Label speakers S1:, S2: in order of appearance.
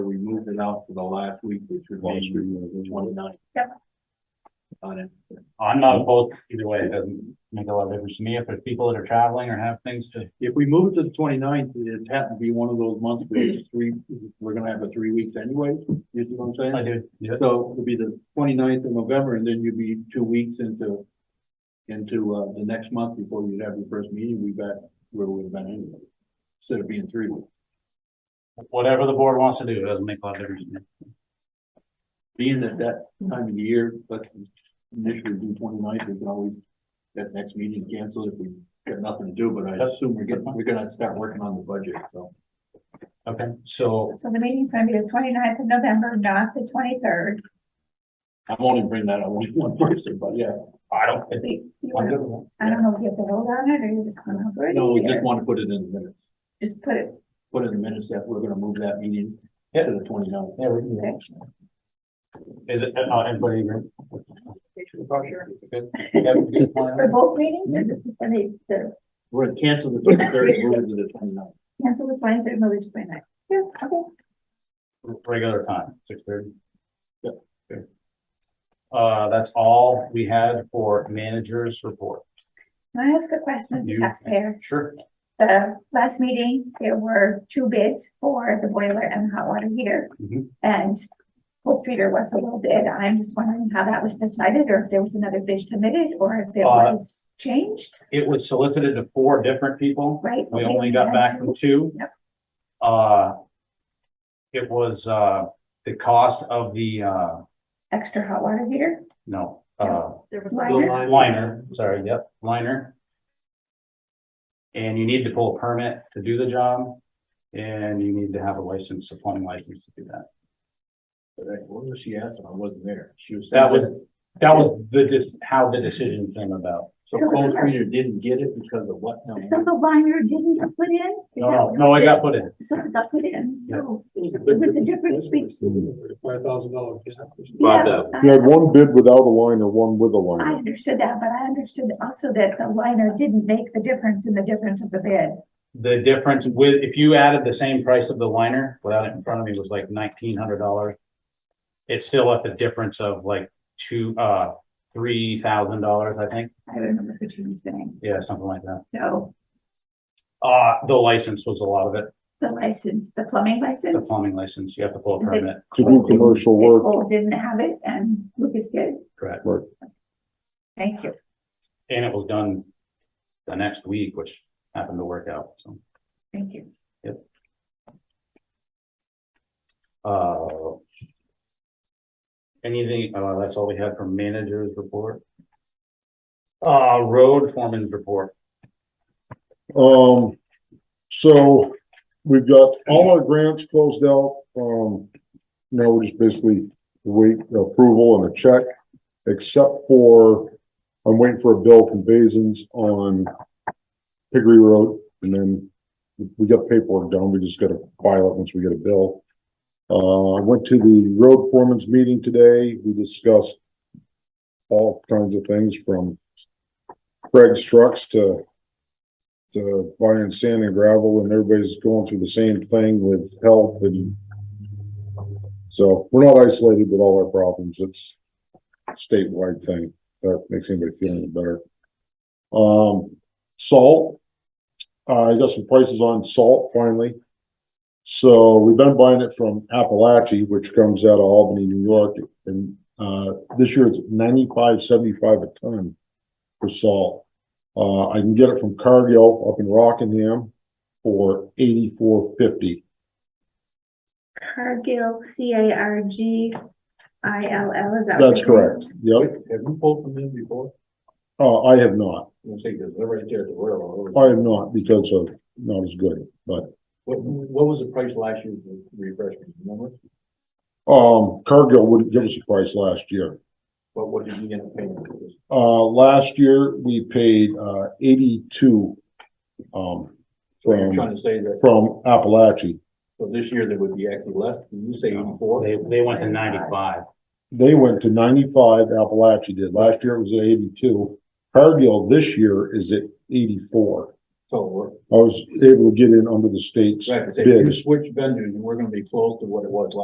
S1: moved it out to the last week, which would be twenty ninth.
S2: Yep.
S1: On it.
S3: I'm not opposed either way, it doesn't make a lot of difference to me if there's people that are traveling or have things to.
S1: If we move to the 29th, it's happened to be one of those months where it's three, we're gonna have a three weeks anyway, you see what I'm saying?
S3: I do. Yeah.
S1: So it'll be the 29th of November and then you'd be two weeks into, into, uh, the next month before you'd have your first meeting, we back where we'd have been anyway. Instead of being three weeks.
S3: Whatever the board wants to do, it doesn't make a lot of difference. to me.
S1: Being at that time of the year, let's initially do 29th. we can always, that next meeting cancel if we got nothing to do, but I assume we're getting, we're gonna start working on the budget, so.
S3: Okay, so
S2: So the meeting's gonna be the 29th of November, not the twenty-third.
S1: I'm only bringing that up with one person, but yeah.
S3: I don't. it- I'm
S2: I
S3: good with
S2: don't know if you have to vote on it, or you're just gonna. have it
S1: No, we
S2: here.
S1: just want to put it in the minutes,
S2: Just put it,
S1: put in the minutes that we're gonna move that meeting to the 29th.
S3: that. Yeah, we can do that. Is it, uh, everybody agree? Good. Yeah, good
S2: for
S3: plan.
S2: both meetings,
S3: Mm-hmm.
S2: or just for the, the,
S1: We're gonna cancel the twenty-third, move it to the 29th.
S2: cancel the twenty-third, move it to twenty-ninth? Yes, okay.
S3: Regular time, six thirty.
S1: Yep.
S3: Good. Uh, that's all we had for managers report.
S2: Can I ask a question as a
S3: You-
S2: taxpayer?
S3: Sure.
S2: The last meeting, there were two bids for the boiler and hot water heater.
S3: Mhm.
S2: And Full Streeter was a little bid. I'm just wondering how that was decided or if there was another bid submitted or if it
S3: Uh,
S2: was changed,
S3: It was solicited to four different people.
S2: right?
S3: We only got back from two.
S2: Yep.
S3: Uh, it was, uh, the cost of the, uh,
S2: Extra hot water heater.
S3: no, uh,
S4: There was
S2: Liner?
S3: liner, sorry, yep, liner. And you need to pull a permit to do the job, and you need to have a license, a plumbing license to do that.
S1: But I- What was she asking? I wasn't there. She was.
S3: That was- That was the, just how the decision came about.
S1: So Cold Reader didn't get it because of what? No,
S2: So the liner didn't get put in? Is that
S3: Oh, No,
S2: what
S3: no,
S2: it
S3: it got put in.
S2: is? So it got put in, so.
S1: It
S2: was a difference between-
S1: Five thousand dollars.
S2: Yeah,
S5: You had one bid without a liner, one with a
S2: I
S5: liner.
S2: understood that, but I understood also that the liner didn't make the difference in the difference of the bid.
S3: The difference with, if you added the same price of the liner without it in front of me was like nineteen hundred dollars. It's still at the difference of like two, uh, three thousand dollars, I think.
S2: I remember what you were saying.
S3: Yeah, something like that.
S2: So
S3: Uh, the license was a lot of it,
S2: the license, the plumbing
S3: the
S2: license,
S3: plumbing license. You have to pull a permit.
S5: To do commercial work,
S2: Nicole didn't have it and Lucas did.
S3: Correct.
S5: Right.
S2: Thank you.
S3: And it was done the next week, which happened to work out, so.
S2: Thank you.
S3: Uh. Anything, uh, that's all we had from managers report. Uh, road foreman's report.
S5: um, so we've got all our grants closed out, um, now we're just basically wait approval and a check, except for, I'm waiting for a bill from Basins on Piggery Road, and then we got paperwork done, we just gotta file it once we get a bill. Uh, I went to the road foreman's meeting today, we discussed all kinds of things from Craig's trucks to to buying sand and gravel and everybody's going through the same thing with health and so we're not isolated with all our problems. It's a statewide thing. if That makes anybody feel any better. Um, salt. Uh, I got some prices on salt finally. So we've been buying it from Appalachia, which comes out of Albany, New York. And, uh, this year it's ninety-five, seventy-five a ton for salt. Uh, I can get it from Cargill up in Rockingham for eighty-four fifty.
S4: Cargill, C A R G I L L, is that? what
S5: That's
S4: it's called?
S5: correct. Yep.
S1: Have you pulled from them before?
S5: Uh, I have not.
S1: I'm gonna say, because they're right there at the railroad.
S5: I have not because of not as good, but,
S1: What, what was the price last year to refresh me, remember?
S5: um, Cargill wouldn't give us a price last year.
S1: But what did you get in payment? for this?
S5: Uh, last year we paid, uh, eighty-two, um,
S1: So you're
S5: from,
S1: trying to say that,
S5: from Appalachia.
S1: so this year there would be actually less, Did you say eighty-four?
S3: They, they went to ninety-five.
S5: They went to ninety-five, Appalachia did. Last year it was at eighty-two. Cargill this year is at eighty-four.
S1: So we're,
S5: I was able to get in under the state's
S1: right, so if you
S5: bid.
S1: switch vendors, and we're gonna be close to what it was last